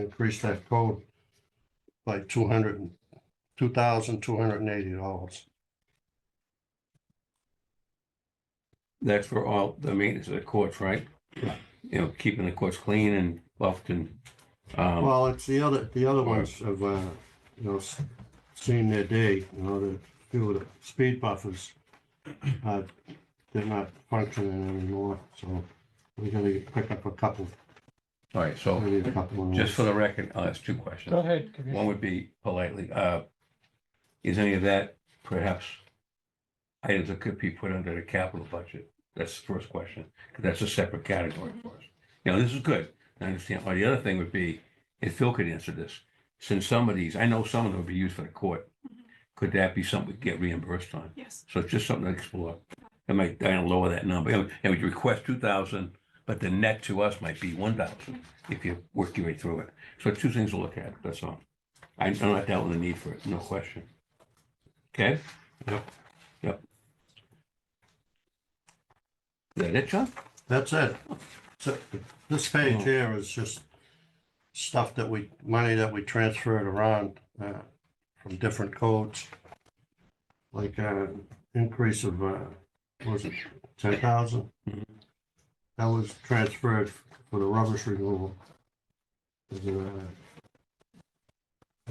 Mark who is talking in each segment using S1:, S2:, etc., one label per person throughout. S1: increase that code by two hundred and, two thousand two hundred and eighty dollars.
S2: That's for all the maintenance of the courts, right?
S1: Yeah.
S2: You know, keeping the courts clean and buffed and, um,
S1: Well, it's the other, the other ones have, uh, you know, s- seen their day, you know, the, few of the speed buffers. uh, They're not functioning anymore, so we're gonna pick up a couple,
S2: all right, so
S1: maybe a couple. of
S2: just for
S1: those.
S2: the record, I'll ask two
S3: Go
S2: questions.
S3: ahead,
S2: One
S3: Commissioner.
S2: would be politely, uh, is any of that perhaps items that could be put under the capital budget? That's the first question, 'cause that's a separate category for us. Now, this is good. I understand. Or the other thing would be, if Phil could answer this, since some of these, I know some of them would be used for the court. Could that be something we get reimbursed on?
S4: Yes,
S2: So it's just something to explore. It might, down lower that number. And and we request two thousand, but the net to us might be one thousand if you work your way through it. So two things to look at, that's all. I I'm not doubting the need for it, no question. Okay? Yep. Yep. Is that it, John?
S1: That's it. So this page here is just stuff that we, money that we transferred around, uh, from different codes. Like, uh, increase of, uh, what was it ten thousand?
S2: Mhm.
S1: That was transferred for the rubbish removal. There's a, uh,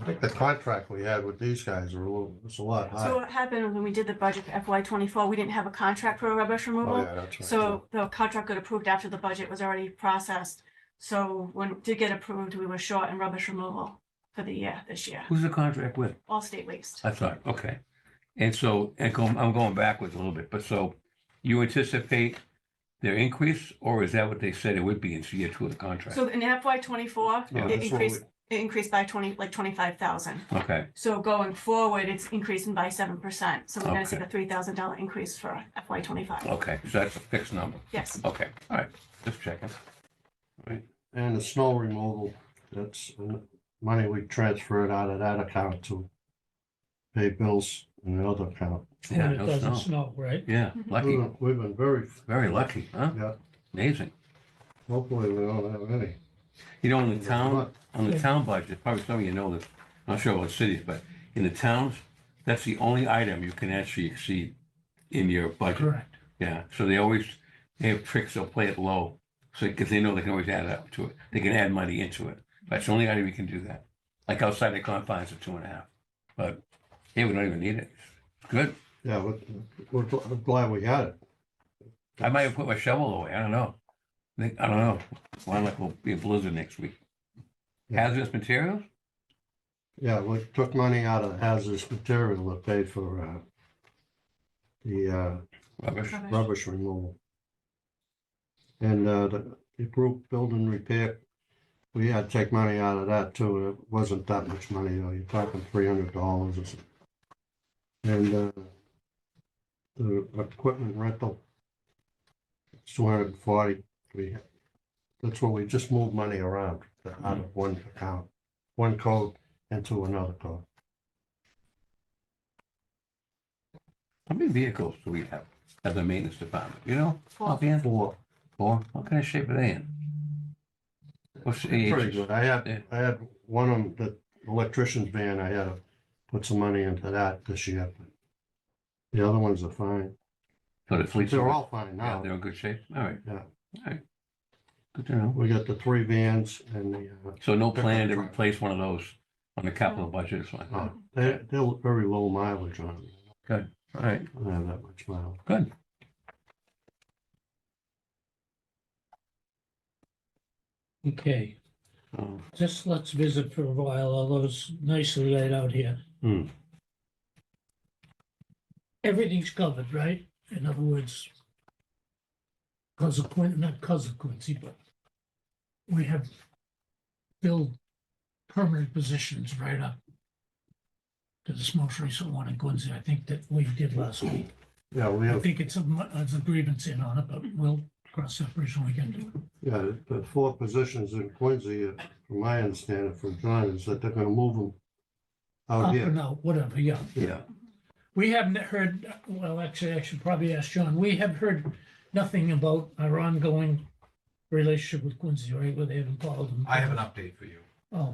S1: I think the contract we had with these guys are a little, it's a lot
S4: so
S1: higher.
S4: what happened when we did the budget for FY twenty-four, we didn't have a contract for rubbish
S1: Oh,
S4: removal.
S1: yeah, that's right.
S4: So the contract got approved after the budget was already processed. So when it did get approved, we were short in rubbish removal for the year, this year,
S2: Who's the contract with?
S4: all state waste.
S2: I thought, okay. And so, and go- I'm going backwards a little bit, but so you anticipate their increase, or is that what they said it would be in year two of the contract?
S4: So in FY twenty-four,
S1: No, that's what
S4: it
S1: we-
S4: increased, it increased by twenty, like twenty-five thousand.
S2: Okay.
S4: So going forward, it's increasing by seven percent. So we're gonna see
S2: Okay.
S4: the three thousand dollar increase for FY twenty-five.
S2: Okay, so that's a fixed number.
S4: Yes,
S2: Okay, all right, just checking.
S1: And the snow removal, that's uh, money we transferred out of that account to pay bills in the other account.
S2: Yeah,
S3: When it
S2: no snow.
S3: doesn't snow, right?
S2: Yeah,
S1: We've
S3: Mm-hmm.
S2: lucky,
S1: been- We've been very,
S2: very lucky, huh?
S1: yeah,
S2: Amazing.
S1: hopefully we don't have any.
S2: You know, in the town,
S1: But
S2: on the
S3: Yeah.
S2: town budget, probably some of you know this, I'm not sure about cities, but in the towns, that's the only item you can actually exceed in your budget.
S3: Correct.
S2: Yeah, so they always, they have tricks, they'll play it low, so, because they know they can always add up to it. They can add money into it. That's the only item you can do that. Like outside the confines of two and a half. But, hey, we don't even need it. Good.
S1: Yeah, we're- we're gl- we're glad we had it.
S2: I might have put my shovel away. I don't know. I think- I don't know. Sound like will be a blizzard next week.
S1: Yeah.
S2: Hazardous materials?
S1: Yeah, we took money out of hazardous material that paid for uh, the uh,
S2: Rubbish?
S4: rubbish.
S1: rubbish removal. And uh, the the group building repair, we had to take money out of that too. It wasn't that much money, though. You're talking three hundred dollars or something. And uh, the equipment rental, two hundred and forty, we, that's what we just moved money around out of one account, one code into another code.
S2: How many vehicles do we have at the maintenance department? You know, offhand,
S1: Four,
S2: four? What kind of shape are they in? What's the
S1: pretty
S2: age?
S1: good. I
S2: Yeah.
S1: had, I had one of them, the electrician's van, I had to put some money into that this year. The other ones are fine.
S2: So Oh, the fleets
S1: They're
S2: are-
S1: all fine
S2: Yeah,
S1: now.
S2: they're in good shape. All right.
S1: Yeah.
S2: All right. Good to know.
S1: We got the three vans and the, uh,
S2: So no plan to replace one of those on the capital budget or something?
S1: uh,
S2: All
S1: they're, they're very low mileage on them.
S2: right,
S1: I don't have that much mileage.
S2: good.
S3: Okay,
S2: Um,
S3: just let's visit for a while, all those nicely laid out here.
S2: Hmm.
S3: Everything's covered, right? In other words, consequence, not consequency, but we have filled permanent positions right up to this most recent one in Quincy, I think that we did last week.
S1: Yeah, we
S3: I
S1: have,
S3: think it's a, mu- it's a grievance in on it, but we'll cross that bridge when we get to it.
S1: yeah, the four positions in Quincy, uh, from my understanding from John, is that they're gonna move them out
S3: Up
S1: here.
S3: and out, whatever, yeah.
S2: Yeah,
S3: We haven't heard, well, actually, I should probably ask John, we have heard nothing about our ongoing relationship with Quincy, right, where they haven't followed them.
S5: I have an update for you.
S3: Oh,